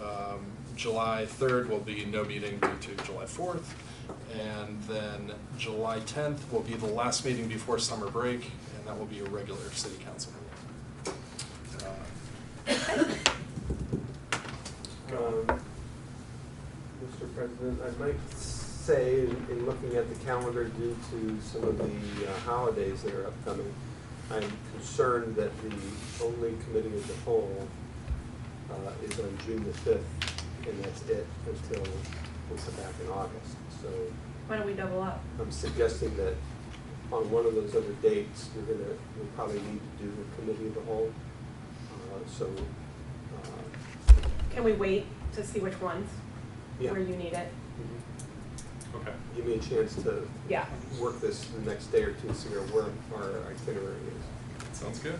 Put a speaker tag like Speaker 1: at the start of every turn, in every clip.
Speaker 1: Um, July 3rd will be no meeting due to July 4th. And then July 10th will be the last meeting before summer break, and that will be a regular city council meeting. Uh,
Speaker 2: Um, Mr. President, I might say, in- in looking at the calendar due to some of the uh, holidays that are upcoming, I'm concerned that the only committee of the whole uh, is on June the fifth, and that's it until we come back in August. So
Speaker 3: Why don't we double up?
Speaker 2: I'm suggesting that on one of those other dates, you're gonna, you'll probably need to do a committee of the whole. Uh, So, uh,
Speaker 3: Can we wait to see which ones,
Speaker 2: yeah.
Speaker 3: where you need it?
Speaker 2: uh,
Speaker 1: Okay.
Speaker 2: Give me a chance to
Speaker 3: Yeah.
Speaker 2: work this the next day or two, and figure out where our itinerary is.
Speaker 1: Sounds good.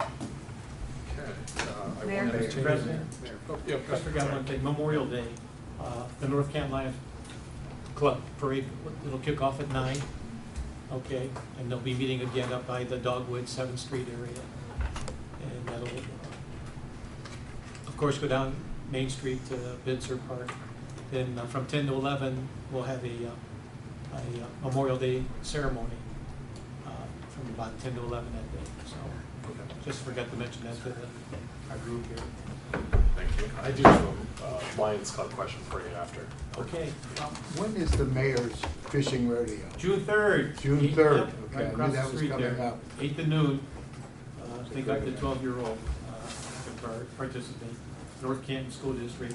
Speaker 1: Okay. uh, I will
Speaker 3: Mayor?
Speaker 1: entertain-
Speaker 4: Mr. President,
Speaker 1: Oh, yeah,
Speaker 4: I forgot one thing, Memorial Day, uh, the North Canton Lions Club Parade, it'll kick off at nine, okay? And they'll be meeting again up by the Dogwood, Seventh Street area. And that'll, uh, of course, go down Main Street to Binzer Park. Then uh, from ten to eleven, we'll have a, uh, a uh, Memorial Day ceremony, uh, from about ten to eleven that day, so.
Speaker 1: Okay.
Speaker 4: Just forgot to mention that to the- our group here.
Speaker 1: Thank you. I do have a uh, Lions Club question for you after.
Speaker 4: Okay,
Speaker 5: When is the mayor's fishing rodeo?
Speaker 4: June third.
Speaker 5: June
Speaker 4: Eight-
Speaker 5: 3rd.
Speaker 4: yep,
Speaker 5: Okay, I
Speaker 4: Right
Speaker 5: knew
Speaker 4: across
Speaker 5: that
Speaker 4: the
Speaker 5: was
Speaker 4: street
Speaker 5: coming
Speaker 4: there,
Speaker 5: up.
Speaker 4: eight to noon. Uh, They got the
Speaker 5: Great.
Speaker 4: twelve-year-old uh, to par- participate, North Canton School District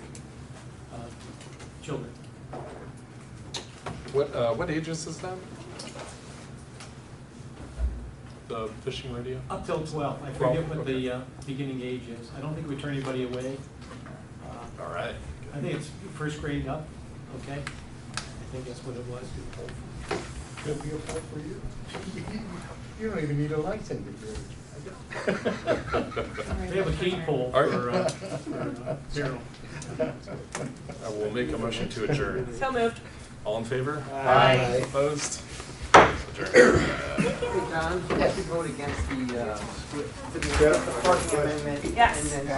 Speaker 4: uh, children.
Speaker 1: What, uh, what age is this then? The fishing radio?
Speaker 4: Up till twelve, I
Speaker 1: Twelve,
Speaker 4: forget what
Speaker 1: okay.
Speaker 4: the uh, beginning age is. I don't think we turn anybody away. Uh,
Speaker 1: All right.
Speaker 4: I think it's first grade up, okay? I think that's what it was.
Speaker 5: Could be a part for you. You don't even need a license if you're.
Speaker 4: They have a key pole
Speaker 1: All right.
Speaker 4: for, uh, for uh, Carol.
Speaker 1: I will make a motion to adjourn.
Speaker 3: So moved.
Speaker 1: All in favor?
Speaker 5: Aye.
Speaker 1: Opposed? Adjourn.
Speaker 6: Hey, Don, you have to vote against the, uh, the parking amendment.
Speaker 3: Yes.
Speaker 6: And then